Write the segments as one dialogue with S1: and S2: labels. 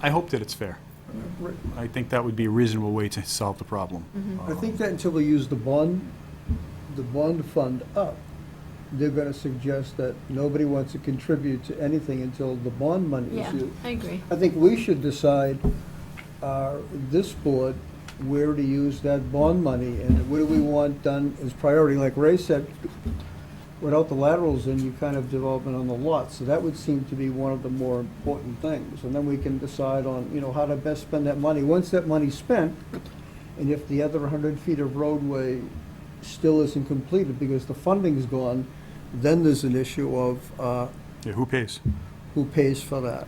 S1: I hope that it's fair.
S2: Right.
S1: I think that would be a reasonable way to solve the problem.
S3: Mm-hmm.
S1: Um,
S2: I think that until we use the bond, the bond fund up, they're gonna suggest that nobody wants to contribute to anything until the bond money
S4: Yeah,
S2: is used.
S4: I agree.
S2: I think we should decide, uh, this board, where to use that bond money, and what do we want done as priority, like Ray said, without the laterals in, you kind of development on the lot, so that would seem to be one of the more important things, and then we can decide on, you know, how to best spend that money, once that money's spent, and if the other hundred feet of roadway still isn't completed because the funding's gone, then there's an issue of, uh,
S1: Yeah, who pays?
S2: who pays for that.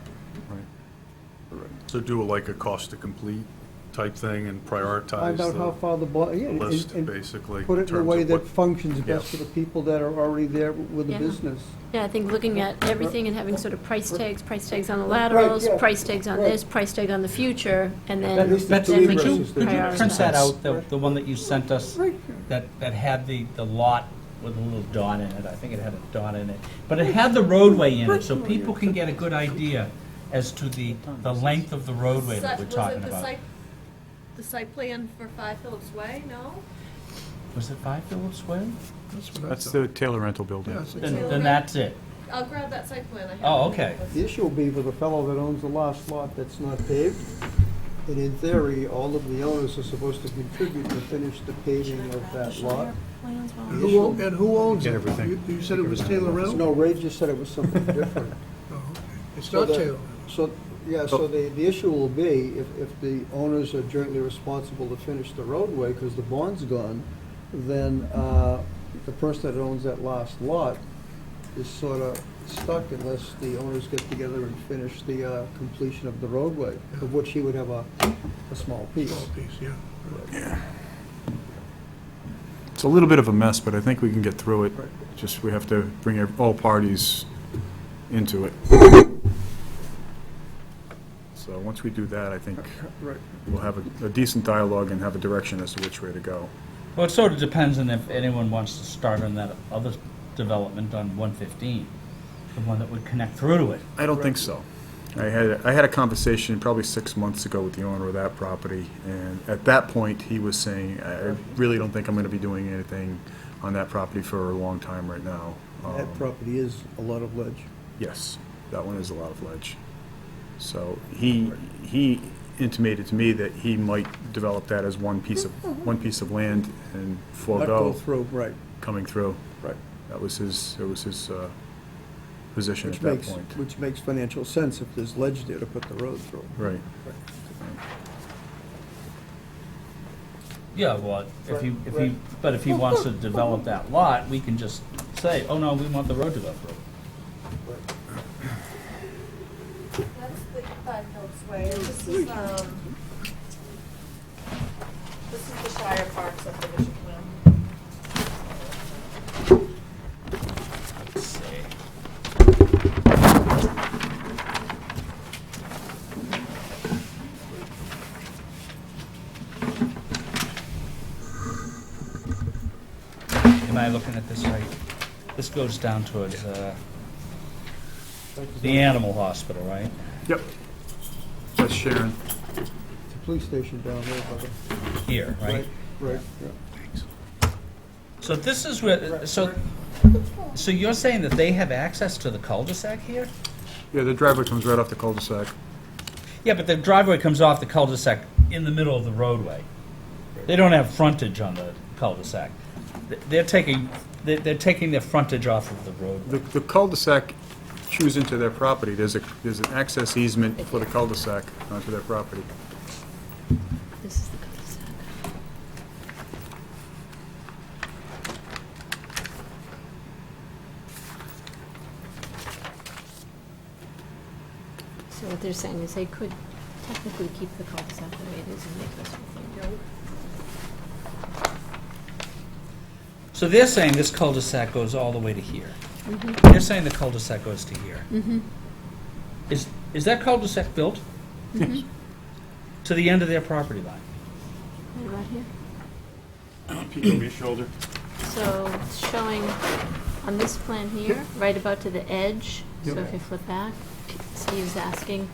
S1: Right.
S5: So do like a cost to complete type thing and prioritize
S2: Find out how
S5: the
S2: far the, bo- yeah,
S5: the
S2: and-
S5: list,
S2: and-
S5: basically.
S2: Put it in a
S5: terms
S2: way
S5: of
S2: that
S5: what-
S2: functions
S5: Yeah.
S2: best for the people that are already there with the
S4: Yeah.
S2: business.
S4: Yeah, I think looking at everything and having sort of price tags, price tags on the
S2: Right,
S4: laterals,
S2: yeah.
S4: price tags on
S2: Right.
S4: this, price tag on the future, and then,
S2: At least the
S4: then
S6: Betsy,
S2: two
S4: we
S6: could
S4: can
S6: you,
S2: versus
S6: could you
S4: prioritize.
S6: print that out, the, the one that you sent us, that, that had the, the lot with a little dot in it, I think it had a dot in it. But it had the roadway in it, so people can get a good idea as to the, the length of the roadway that
S7: Site-
S6: we're
S7: was
S6: talking
S7: it the
S6: about.
S7: site- The site plan for Five Phillips Way, no?
S6: Was it five Phillips Way?
S1: That's the Taylor Rental Building.
S6: Then, then that's it.
S7: I'll grab that site plan, I have.
S6: Oh,
S7: it.
S6: okay.
S2: The issue will be for the fellow that owns the last lot that's not paved. And in theory, all of the owners are supposed to contribute to finish the paving of that lot.
S3: And who, o- and who owns it? You you said it was Taylor Reynolds?
S2: No, Ray just said it was something different.
S3: It's
S2: So
S3: not
S2: the-
S3: Taylor Reynolds.
S2: So, yeah, so the, the issue will be if, if the owners are jointly responsible to finish the roadway because the bond's gone, then uh, the person that owns that last lot is sort of stuck unless the owners get together and finish the uh, completion of the roadway, of which he would have a, a small piece.
S3: Small piece, yeah.
S1: It's a little bit of a mess, but I think we can get through it. Just, we have to bring ev- all parties into it. So once we do that, I think
S2: Right.
S1: we'll have a- a decent dialogue and have a direction as to which way to go.
S6: Well, it sort of depends on if anyone wants to start on that other development on one fifteen, the one that would connect through to it.
S1: I don't think so. I had, I had a conversation probably six months ago with the owner of that property, and at that point, he was saying, I I really don't think I'm gonna be doing anything on that property for a long time right now.
S2: That
S1: Um,
S2: property is a lot of ledge.
S1: Yes, that one is a lot of ledge. So he, he intimated to me that he might develop that as one piece
S2: Mm-hmm.
S1: of, one piece of land and
S2: Not
S1: forego
S2: go through, right,
S1: coming through.
S2: right.
S1: That was his, that was his uh, position at
S2: Which
S1: that
S2: makes,
S1: point.
S2: which makes financial sense if there's ledge there to put the road through.
S1: Right.
S6: Yeah, well, if he, if he, but if he wants to develop that lot, we can just say, oh, no, we want the road developed.
S7: That's the Five Phillips Way, and this is, um, this is the Shire Park subdivision plan.
S6: Let's see. Am I looking at this right? This goes down towards, uh, the animal hospital, right?
S1: Yep. That's Sharon.
S2: It's a police station down there, brother.
S6: Here, right?
S2: Right, yeah.
S6: So this is where, so, so you're saying that they have access to the cul-de-sac here?
S1: Yeah, the driveway comes right off the cul-de-sac.
S6: Yeah, but the driveway comes off the cul-de-sac in the middle of the roadway. They don't have frontage on the cul-de-sac. Th- They're taking, they're, they're taking their frontage off of the
S1: The
S6: roadway.
S1: the cul-de-sac chews into their property. There's a, there's an access easement for the cul-de-sac onto their property.
S4: This is the cul-de-sac. So what they're saying is they could technically keep the cul-de-sac the way it is and make this whole thing go.
S6: So they're saying this cul-de-sac goes all the way to here. They're saying the cul-de-sac goes to here. Is, is that cul-de-sac built? To the end of their property line?
S4: Right about here? shoulder. So it's showing on this plan here, right about to the edge, so if you flip back, Steve's asking